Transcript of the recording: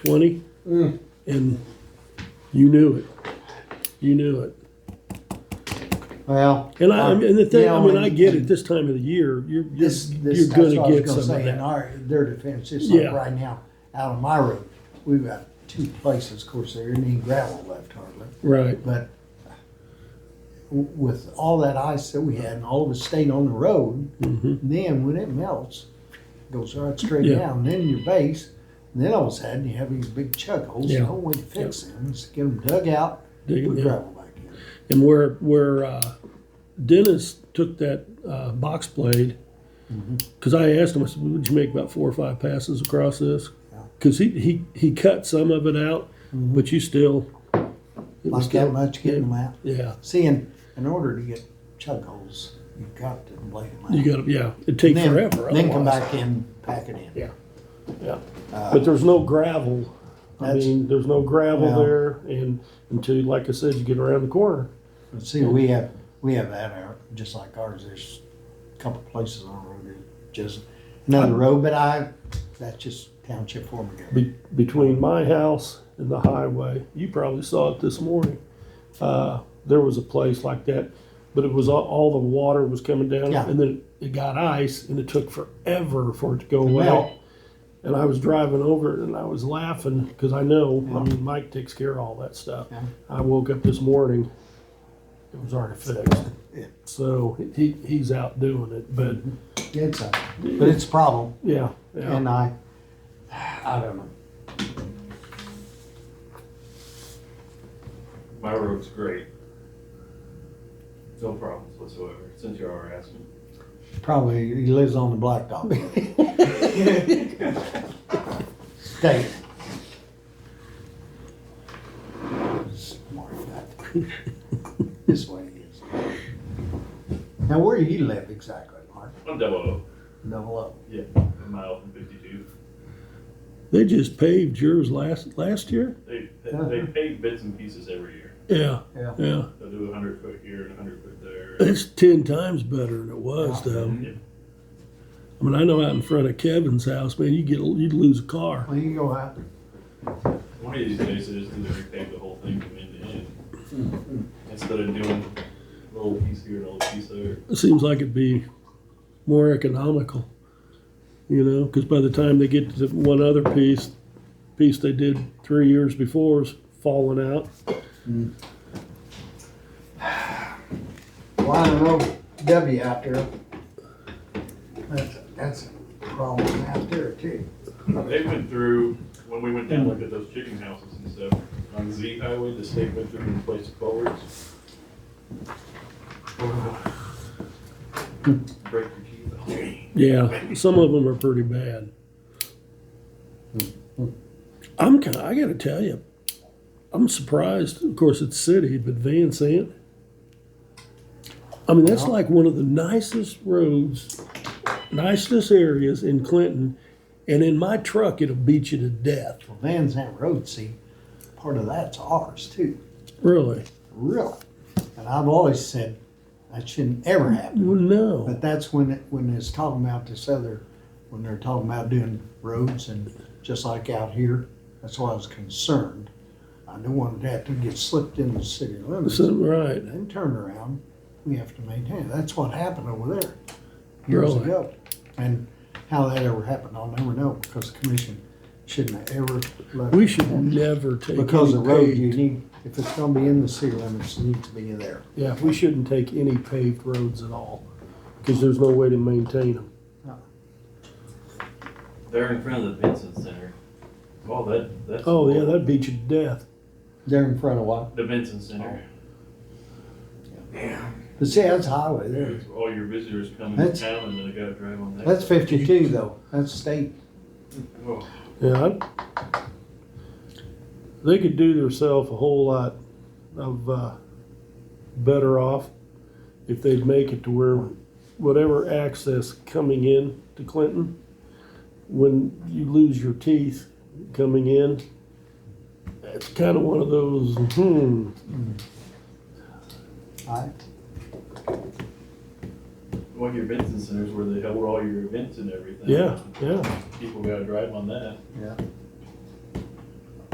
twenty, Mm. and you knew it. You knew it. Well. And I, I mean, the thing, yeah, I mean, and- I get it, this time of the year, you're, you're, This, this, you're that's what I gonna was get gonna some of say, in that. our, their defense, it's Yeah. like right now, out of my road, we've got two places, of course, there isn't any gravel left hardly. Right, But w- with all that ice that we had and all of it stayed on the road, Mhm. then when it melts, goes right straight Yeah. down, then your base, and then all of a sudden you have these big chug holes. Yeah. The only way to fix them is to get them dug out, Dig put it down. gravel back in. And where, where, uh, Dennis took that, uh, box blade, Mm-hmm. cause I asked him, I said, would you make about four or five passes across this? Yeah. Mm-hmm. Cause he, he, he cut some of it out, but you still. it was Like that still- much, getting them out. Yeah, See, in, in order to get chug holes, you've got to blade them out. you gotta, yeah, it'd take then, forever otherwise. Then come back in, pack it in. Uh, Yeah, yeah. But there's no gravel. I That's- mean, there's no gravel Well- there and until, like I said, you get around the corner. But see, we have, we have that, out, just like ours, there's a couple places on the road, that just another road, but I, that's just township form again. Be- between my house and the highway, you probably saw it this morning. Uh, there was a place like that, but it was all, all the water was coming down Yeah. and then it got ice and it took forever for it to go melt. out. And I was driving over it and I was laughing because I know, I mean, Mike takes care of all that stuff. Yeah. I woke up this morning, it was already fixed. Yeah. So he, he's out doing it, but It's a, but it's a problem, yeah, yeah. and I, I don't know. My road's great. No problems whatsoever, since you are asking. Probably, he lives on the blacktop. State. Smart guy. This way he is. Now, where do you live exactly, Mark? I'm double O. Double O. Yeah, a mile from fifty-two. They just paved yours last, last year? They, they pay bits and pieces every year. Yeah, Yeah. yeah. They'll do a hundred foot here and a hundred foot there. It's ten times better than it was, though. Yeah. I mean, I know out in front of Kevin's house, man, you get you'd lose a car. Well, you go out. One of these days, they just do they repave the whole thing from end to end. Instead of doing a little piece here and a little piece there. It seems like it'd be more economical, you know, because by the time they get to the one other piece, piece they did three years before is falling out. Line of road W out there. That's, that's a problem out there too. They went through, when we went down, looked at those chicken houses and stuff, on Z Highway, the state went through and replaced culverts. Break your teeth. Yeah, some of them are pretty bad. I'm kind. I got to tell you, I'm surprised. Of course, it's city, but Van Sant. I mean, that's Yeah. like one of the nicest roads, nicest areas in Clinton, and in my truck, it'll beat you to death. Well, Van Zant Road, see, part of that's ours too, Really? really. And I've always said, that shouldn't ever happen. Well, no. But that's when it, when it's talking about this other, when they're talking about doing roads and just like out here, that's why I was concerned. I don't want that to get slipped into the city limits. So, right. Then turn around, we have to maintain. it. That's what happened over there years Really? ago. And how that ever happened, I'll never know because the commission shouldn't have ever let. We should never take Because the any road, paved- you need, if it's gonna be in the city limits, it needs to be there. Yeah, we shouldn't take any paved roads at all, because there's no way to maintain them. They're in front of the Vincent Center. Oh, that, that's. Oh yeah, that'd beat you to death. They're in front of what? The Vincent Center. But see, that's highway there. There's all your visitors coming to That's- town and then they gotta drive on that. That's fifty-two though, that's state. Oh, Yeah. I'd- They could do themselves a whole lot of uh, better off if they'd make it to where whatever access coming in to Clinton, when you lose your teeth coming in, it's kind of one of those, hmm, I, Well, your Vincent Center's where they held all your events and everything. yeah, yeah. People gotta drive on that. yeah.